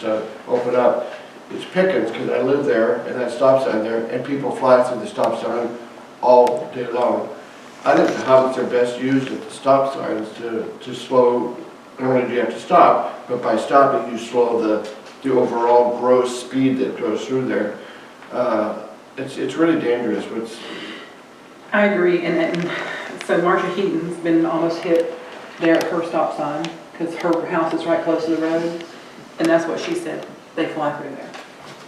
to open up, it's Pickens, because I live there, and that stop sign there, and people fly through the stop sign all day long. I think the hobbits are best used at the stop signs to, to slow, not only do you have to stop, but by stopping, you slow the, the overall gross speed that goes through there. Uh, It's, it's really dangerous, what's, I agree, and then, so Marcia Heaton's been almost hit there at her stop sign, because her house is right close to the road, and that's what she said, they fly through there.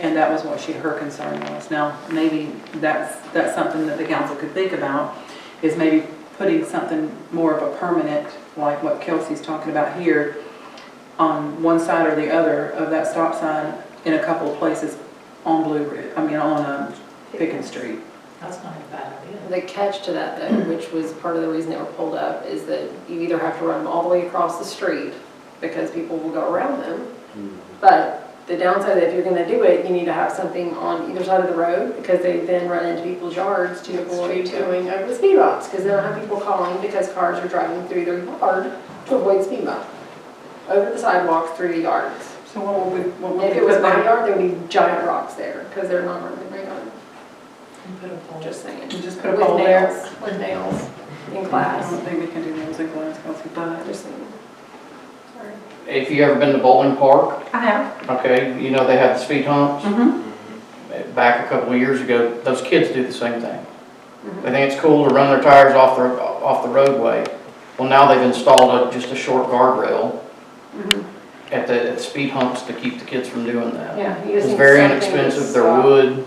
And that was what she, her concern was. Now, maybe that's, that's something that the council could think about, is maybe putting something more of a permanent, like what Kelsey's talking about here, on one side or the other of that stop sign in a couple of places on Blue Ridge, I mean, on um, Pickens Street. That's not a bad idea. The catch to that though, which was part of the reason they were pulled up, is that you either have to run them all the way across the street because people will go around them. But the downside, if you're gonna do it, you need to have something on either side of the road because they then run into people's yards to avoid going over the speed bumps. Because they don't have people calling because cars are driving through their yard to avoid speed bump. Over the sidewalks, through the yards. So what would we, what And would we? If it was put my there? yard, there would be giant rocks there because they're not running their yard. And put a pole. Just saying. We Just put a With poll there? nails, with nails in I class. don't think we can do nails in glass, Kelsey, I but. just think- sorry. If you ever been to Bowling Park, I have. okay, you know they have the speed humps. Mm-hmm. Back a couple of years ago, those kids do the same thing. They think it's cool to run their tires off the, off the roadway. Well, now they've installed a, just a short guardrail Mm-hmm. at the, at the speed humps to keep the kids from doing that. Yeah. you just It's need very something to inexpensive, they're stop. wood,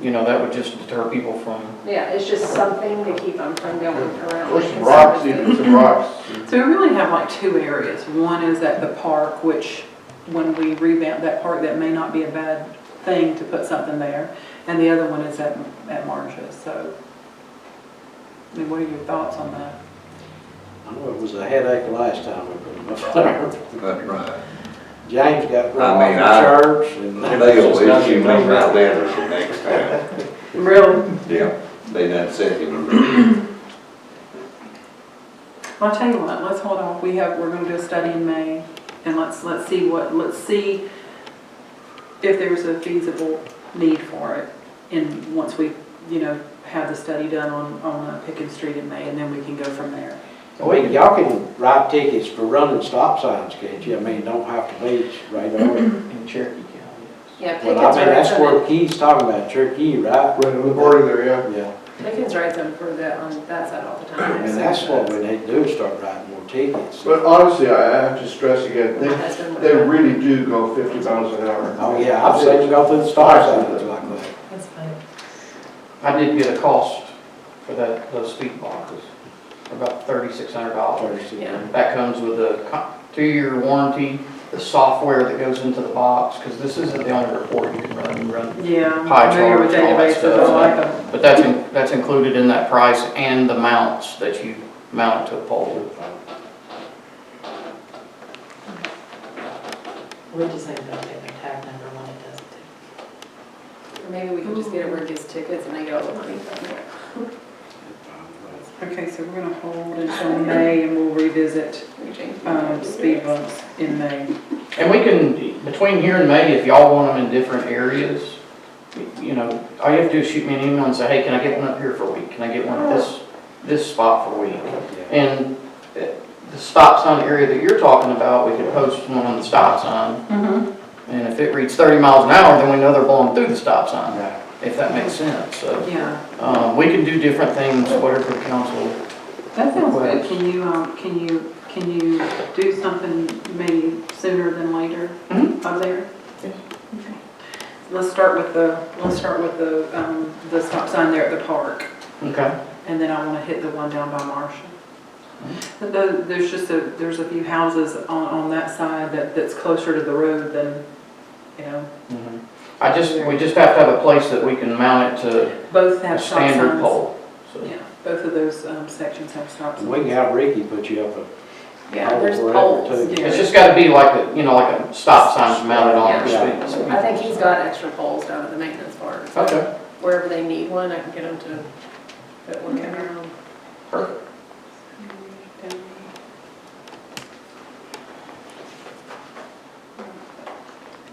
you know, that would just deter people from, Yeah, it's just something to keep them from going around. or some rocks, even some rocks. So we really have like two areas. One is at the park, which when we revamp that park, that may not be a bad thing to put something there. And the other one is at, at Marsh's, so. I mean, what are your thoughts on that? I know it was a headache last time we put them up there. That's right. James got run I off mean, the I- church and. They'll issue me my letters the next time. Really? Yeah, they done sent him. Well, I'll tell you what, let's hold off. We have, we're gonna do a study in May and let's, let's see what, let's see if there's a feasible need for it. And once we, you know, have the study done on, on uh, Pickens Street in May and then we can go from there. Well, y'all can write tickets for running stop signs, can't you? I mean, don't have to be right over. in Cherokee County. Yeah, Well, I Pickens mean, that's writes what them, he's talking about, Cherokee, right? Right on the border there, yeah. Yeah, Pickens writes them for the, on that side all the time. and that's what we need to do, is start writing more tickets. But honestly, I I have to stress again, My they, husband would They have- really do go 50 miles an hour. Oh, yeah, I've seen you go through the stop signs like that. That's funny. I did get a cost for that, those speed boxes, about thirty-six hundred dollars. Yeah. That comes with a co- two-year warranty, the software that goes into the box, because this isn't the only report you can run, you run. Yeah. I'm Pie familiar with charts, all databases. that I stuff. like 'em. But that's, in- that's included in that price and the mounts that you mount to a pole. We just need to update their tag number when it does it. Or Maybe we can just get it where it gets tickets and they get all the money from it. Okay, so we're gonna hold until May and we'll revisit, We change- um, speed bumps in May. And we can, between here and May, if y'all want them in different areas, you know, all you have to do is shoot me an email and say, hey, can I get one up here for a week? Can I get one at this, this spot for a week? Yeah. And uh, the stop sign area that you're talking about, we could post one on the stop sign. Mm-hmm. And if it reads thirty miles an hour, then we know they're blowing through the stop sign, Right. if that makes sense. So, Yeah, um, we can do different things, whatever the council. that sounds good. Can you, um, can you, can you do something maybe sooner than later? up there? Mm-hmm. Yes. Okay. Let's start with the, let's start with the, um, the stop sign there at the park, Okay. and then I wanna hit the one down by Marshall. Mm-hmm. But tho- There's just a, there's a few houses on, on that side that, that's closer to the road than, you know, Mhm. I just, we just have to have a place that we can mount it to both a have stop signs. standard pole. So, Yeah, both of those, um, sections have stop And we signs. can have Ricky put you up a Yeah, there's Or whatever, poles. too. It's just gotta be like a, you know, like a stop sign mounted on the street. I think he's got extra poles down at the maintenance bar. Okay, Wherever they need one, I can get them to put one in. perfect.